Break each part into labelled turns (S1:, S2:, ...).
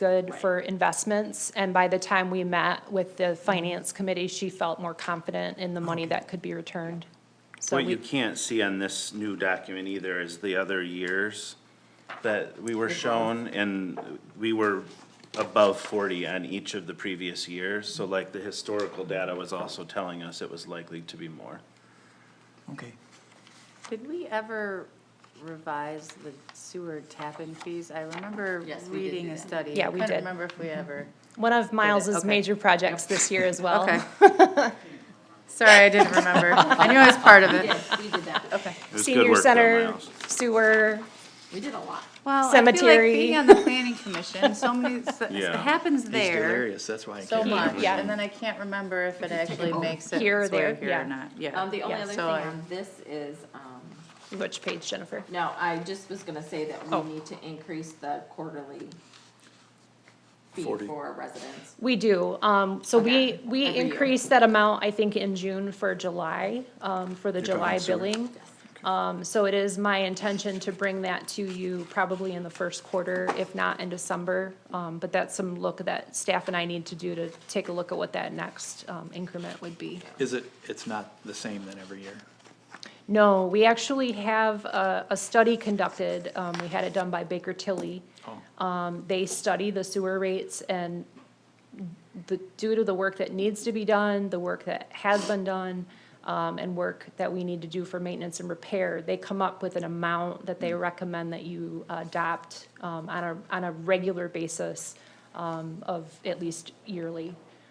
S1: good for investments. And by the time we met with the finance committee, she felt more confident in the money that could be returned. So
S2: What you
S1: we,
S2: can't see on this new document either is the other years that we were shown, and we were above forty on each of the previous years, so like the historical data was also telling us it was likely to be more.
S3: Okay.
S4: Did we ever revise the sewer tap-in fees? I remember
S5: Yes, we did
S4: reading
S5: do
S4: a
S5: that. Mm-hmm.
S4: study.
S1: Yeah,
S4: I
S1: we did.
S4: Couldn't remember if we ever.
S1: one of Miles's
S4: okay.
S1: major projects this year as well.
S4: Okay. Sorry, I didn't remember. I knew I was part of it.
S5: Yes, we did that. Okay.
S2: It was good
S1: Senior
S2: work though,
S1: center,
S2: Miles.
S1: sewer,
S5: We did a lot.
S4: Well, I feel like
S1: Cemetery.
S4: being on the planning commission, so many, it
S2: Yeah.
S4: happens there
S3: Hilarious, that's why I
S4: so
S3: can't.
S4: much.
S1: Yeah.
S4: And then I can't remember if it actually makes it
S1: Here or
S4: its way
S1: there,
S4: here
S1: yeah.
S4: or not. Yeah.
S5: Um, the only
S1: Yeah,
S5: other thing
S4: so I-
S5: on this is, um,
S1: which page, Jennifer?
S5: no, I just was gonna say that
S1: Oh.
S5: we need to increase the quarterly fee
S3: 40.
S5: for residents.
S1: We do, um, so we,
S5: Okay,
S1: we
S5: every year.
S1: increased that amount, I think, in June for July, um, for the
S3: You're talking
S1: July
S3: sewer.
S1: billing. Um, so it is my intention to bring that to you probably in the first quarter, if not in December. Um, but that's some look that staff and I need to do to take a look at what that next, um, increment would be.
S3: Is it, it's not the same then every year?
S1: No, we actually have a, a study conducted, um, we had it done by Baker Tilly.
S3: Oh.
S1: Um, they study the sewer rates and the, due to the work that needs to be done, the work that has been done, um, and work that we need to do for maintenance and repair, they come up with an amount that they recommend that you adopt, um, on a, on a regular basis, um, of at least yearly.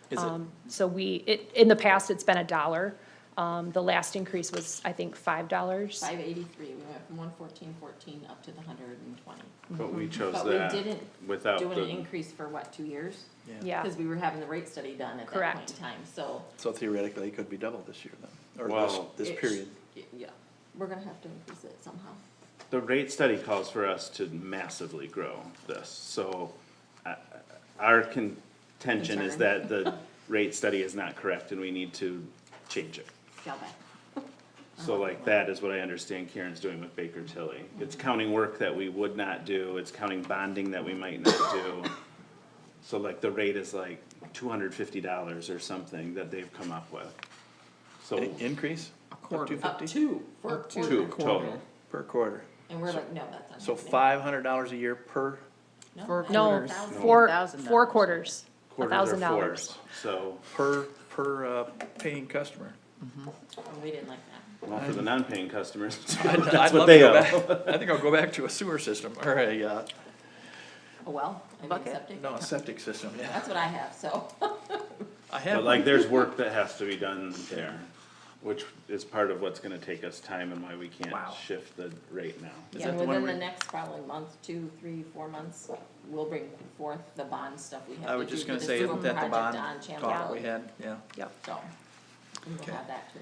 S3: Is it-
S1: Um, So we, it, in the past, it's been a dollar. Um, the last increase was, I think, five dollars.
S5: Five eighty-three, we went from one fourteen fourteen up to the hundred and twenty.
S2: But we chose
S5: Mm-hmm. But we
S2: that
S5: didn't
S2: without
S5: Do an
S2: the,
S5: increase for what, two years?
S1: Yeah,
S5: Cause we were having the rate study done at that point
S1: Correct.
S5: in time, so.
S3: So theoretically, it could be double this year then, or this,
S2: Well-
S3: this
S5: it-
S3: period.
S5: Yeah, we're gonna have to increase it somehow.
S2: the rate study calls for us to massively grow this, so uh, our contention is
S5: Concern.
S2: that the rate study is not correct and we need to change it.
S5: Scale back.
S2: So
S3: Uh-huh.
S2: like that is what I understand Karen's doing with Baker Tilly. It's
S3: Mm-hmm.
S2: counting work that we would not do, it's counting bonding that we might not do. So like the rate is like two hundred fifty dollars or something that they've come up with. So
S3: An increase? A quarter. Two
S5: Up
S3: fifty
S5: two for a
S2: two
S5: quarter.
S2: total.
S3: per quarter.
S5: And we're like, no, that's not.
S3: So
S5: happening.
S3: five hundred dollars a year per,
S5: No,
S4: Four
S5: that's
S1: no,
S4: quarters.
S5: $1,000.
S1: four,
S4: $1,000.
S1: four quarters, a
S2: Quarters are
S1: thousand dollars.
S2: fours. So,
S3: per, per, uh, paying customer. Oh,
S5: And we didn't like that.
S2: well, for the non-paying customers,
S3: I'd- I'd
S2: that's
S3: love
S2: what
S3: to
S2: they
S3: go
S2: owe.
S3: back- I think I'll go back to a sewer system or a, uh,
S5: Oh, well, I mean,
S4: Bucket.
S5: septic.
S3: no, a septic system, yeah.
S5: That's what I have, so.
S3: I have,
S2: But like, there's work that has to be done there, which is part of what's gonna take us time and why we can't
S3: Wow.
S2: shift the rate now.
S3: Is that
S5: And
S3: the one
S5: within the
S3: where-
S5: next probably month, two, three, four months, we'll bring forth the bond stuff we have
S3: I
S5: to
S3: was
S5: do
S3: just
S5: for
S3: gonna
S5: the
S3: say,
S5: sewer
S3: isn't that the
S5: project
S3: bond
S5: on Channel
S3: talk we
S5: Valley.
S3: had, yeah.
S1: Yep.
S5: So, we will
S3: Okay.
S5: have that too.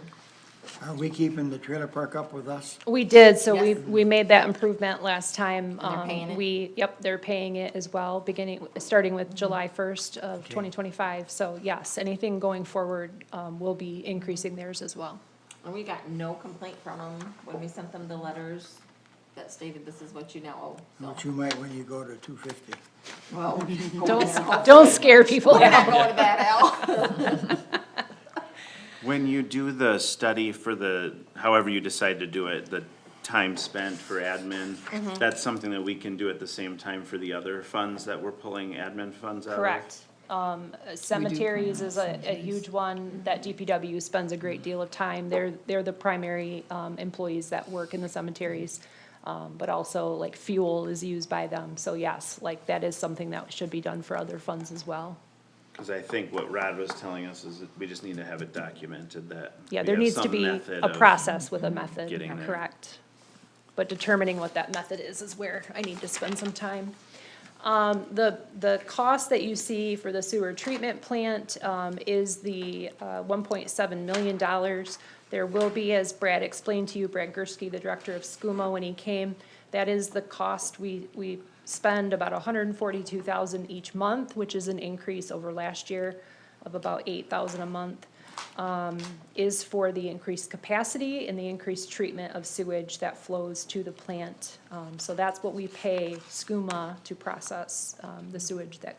S6: Are we keeping the trailer park up with us?
S1: We did, so we,
S5: Yes.
S1: we made that improvement last time.
S5: And they're
S1: Um,
S5: paying it? Mm-hmm.
S1: We, yep, they're paying it as well, beginning, starting with July first of
S6: Okay.
S1: twenty twenty-five. So yes, anything going forward, um, will be increasing theirs as well.
S5: And we got no complaint from them when we sent them the letters that stated this is what you now owe,
S6: Which
S5: so.
S6: you might when you go to two fifty.
S5: Well, Oh.
S1: Don't, don't scare people
S5: We're not
S1: out.
S5: going to that, Al.
S2: When you do the study for the, however you decide to do it, the time spent for admin, that's something that we can do at the same time for the other funds that we're pulling admin funds out of?
S1: Correct. Um, cemeteries is a, a huge one that DPW spends a great deal of time. They're, they're the primary, um, employees that work in the cemeteries. Um, but also like fuel is used by them. So yes, like that is something that should be done for other funds as well.
S2: Cause I think what Rod was telling us is that we just need to have it documented that.
S1: Yeah,
S2: we
S1: there
S2: have
S1: needs to
S2: some
S1: be
S2: method
S1: a
S2: of-
S1: process with a method,
S2: getting there.
S1: correct. But determining what that method is, is where I need to spend some time. Um, the, the cost that you see for the sewer treatment plant, um, is the, uh, one point seven million dollars. There will be, as Brad explained to you, Brad Gursky, the director of SCUMO, when he came, that is the cost we, we spend about hundred and forty-two thousand each month, which is an increase over last year of about eight thousand a month is for the increased capacity and the increased treatment of sewage that flows to the plant. Um, So that's what we pay SCUMA to process um, the sewage that